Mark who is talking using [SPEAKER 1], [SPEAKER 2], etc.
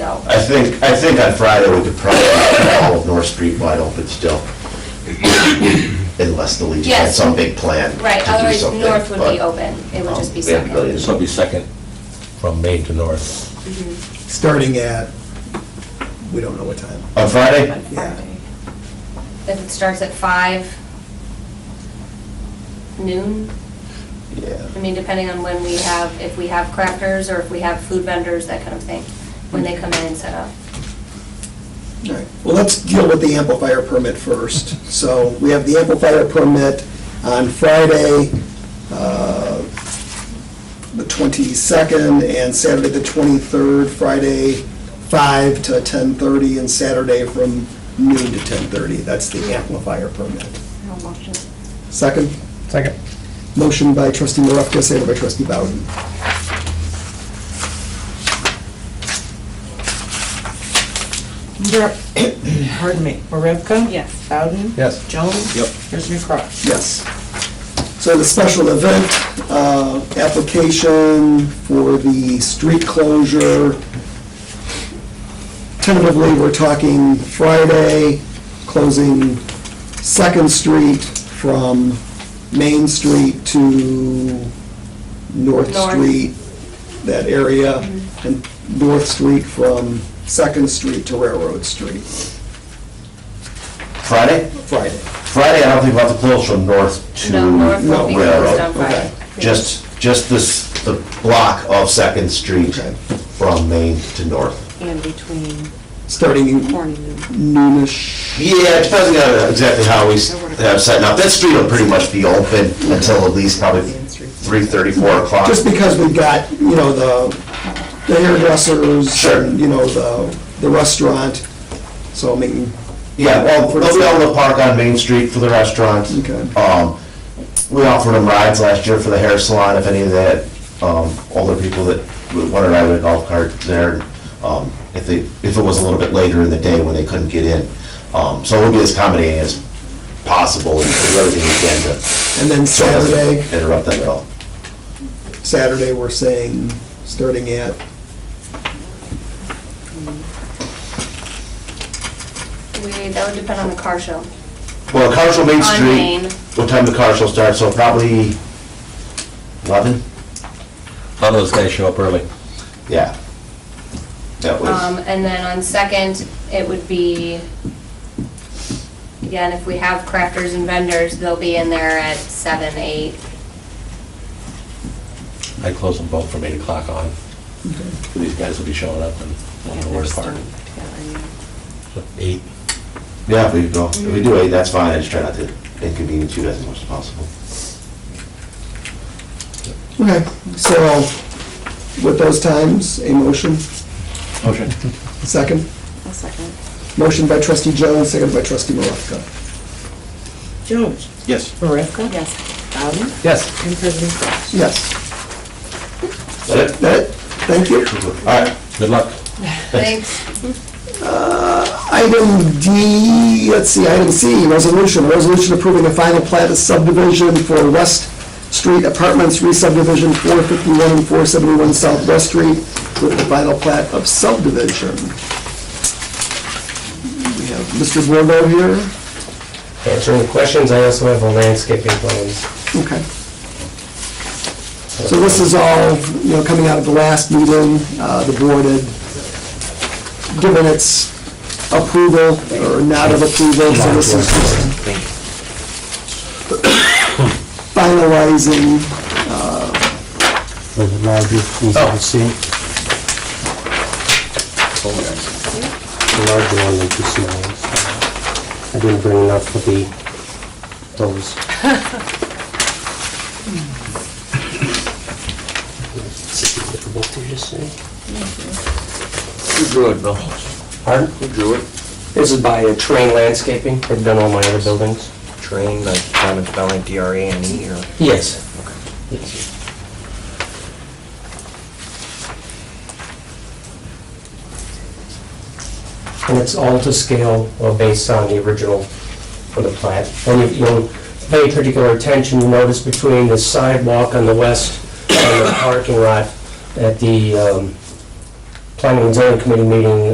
[SPEAKER 1] I think, I think on Friday, we could probably have all of North Street wide open still. Unless the Legion had
[SPEAKER 2] Yes.
[SPEAKER 1] some big plan to do
[SPEAKER 2] Right, otherwise
[SPEAKER 1] something,
[SPEAKER 2] north would
[SPEAKER 1] but-
[SPEAKER 2] be open, it would just be
[SPEAKER 1] Um, we haven't really-
[SPEAKER 2] second.
[SPEAKER 3] So it'd be second from Main to North.
[SPEAKER 2] Mm-hmm.
[SPEAKER 4] starting at, we don't know what time.
[SPEAKER 1] On Friday?
[SPEAKER 4] Yeah.
[SPEAKER 2] If it starts at five noon,
[SPEAKER 1] Yeah.
[SPEAKER 2] I mean, depending on when we have, if we have crackers or if we have food vendors, that kind of thing, when they come in and set up.
[SPEAKER 4] All right. Well, let's deal with the amplifier permit first. So we have the amplifier permit on Friday, uh, the 22nd, and Saturday, the 23rd, Friday, 5 to 10:30, and Saturday from noon to 10:30. That's the amplifier permit. Second?
[SPEAKER 5] Second.
[SPEAKER 4] Motion by trustee Marevka, second by trustee Bowden.
[SPEAKER 6] Mer- Pardon me, Marevka?
[SPEAKER 7] Yes.
[SPEAKER 6] Bowden?
[SPEAKER 5] Yes.
[SPEAKER 6] Jones?
[SPEAKER 4] Yep.
[SPEAKER 6] President Cross?
[SPEAKER 4] Yes. So the special event uh, application for the street closure, tentatively, we're talking Friday, closing Second Street from Main Street to North
[SPEAKER 2] North.
[SPEAKER 4] Street, that area, and North Street from Second Street to Railroad Street,
[SPEAKER 1] Friday?
[SPEAKER 4] Friday.
[SPEAKER 1] Friday, I don't think we'll have to close from north to
[SPEAKER 2] No, north will be closed on
[SPEAKER 1] railroad.
[SPEAKER 2] Friday.
[SPEAKER 1] Just, just this, the block of Second Street
[SPEAKER 4] Okay.
[SPEAKER 1] from Main to north.
[SPEAKER 7] And between
[SPEAKER 4] starting
[SPEAKER 7] morning and
[SPEAKER 4] noonish.
[SPEAKER 1] Yeah, it depends on exactly how we s- have set up. That street will pretty much be open until at least probably three thirty, four o'clock.
[SPEAKER 4] Just because we've got, you know, the the hairdressers,
[SPEAKER 1] Sure.
[SPEAKER 4] and, you know, the, the restaurant, so I mean.
[SPEAKER 1] Yeah, well, they'll be able to park on Main Street for the restaurants.
[SPEAKER 4] Okay.
[SPEAKER 1] Um, we offered them rides last year for the hair salon, if any of that, um, older people that would want to ride a golf cart there, um, if they, if it was a little bit later in the day when they couldn't get in. Um, so we'll be as accommodating as possible and do everything we can to.
[SPEAKER 4] And then
[SPEAKER 1] so it doesn't
[SPEAKER 4] Saturday,
[SPEAKER 1] Interrupt them at all.
[SPEAKER 4] Saturday, we're saying, starting at,
[SPEAKER 2] We, that would depend on the car show.
[SPEAKER 1] Well, Carshall Main
[SPEAKER 2] On Main.
[SPEAKER 1] Street, what time the car show starts, so probably eleven?
[SPEAKER 3] A lot of those guys show up early.
[SPEAKER 1] Yeah. That was.
[SPEAKER 2] Um, and then on second, it would be, again, if we have crafters and vendors, they'll be in there at seven, eight.
[SPEAKER 3] I close them both from eight o'clock on. These guys will be showing up and won't know where to park. So Eight.
[SPEAKER 1] Yeah, if we go, if we do eight, that's fine, I just try not to inconvenience you guys as much as possible.
[SPEAKER 4] okay, so with those times, a motion,
[SPEAKER 3] Motion.
[SPEAKER 4] second.
[SPEAKER 7] A second.
[SPEAKER 4] Motion by trustee Jones, second by trustee Maravka.
[SPEAKER 6] Jones?
[SPEAKER 3] Yes.
[SPEAKER 6] Marevka?
[SPEAKER 7] Yes.
[SPEAKER 6] Bowden?
[SPEAKER 5] Yes.
[SPEAKER 6] And President Cross?
[SPEAKER 4] Yes,
[SPEAKER 1] Is that it?
[SPEAKER 4] that, it? thank you.
[SPEAKER 1] All right,
[SPEAKER 3] Good luck.
[SPEAKER 2] Thanks.
[SPEAKER 4] Item D, let's see, item C, resolution, resolution approving the final plat of subdivision for West Street Apartments re-subdivision 451 and 471 South West Street with the final plat of subdivision. We have Mr. Bordeaux here.
[SPEAKER 5] Answering the questions, I also have a landscaping plans.
[SPEAKER 4] Okay. So this is all, you know, coming out of the last meeting, uh, the board had given its approval or not of approval, so this is just finalizing,
[SPEAKER 8] for the larger, you can see. The larger one than the small ones. I didn't bring enough for the, those. What did you say?
[SPEAKER 5] Who drew it, Bill?
[SPEAKER 8] Pardon?
[SPEAKER 5] Who drew it?
[SPEAKER 8] This is by uh, Terrain Landscaping. They've done all my other buildings.
[SPEAKER 5] Train, like, kind of spelling like D R A N E, or?
[SPEAKER 8] Yes. Yes. and it's all to scale or based on the original for the plat. And if you'll pay particular attention, you notice between the sidewalk on the west and the parking lot at the um, Planning and Zoning Committee meeting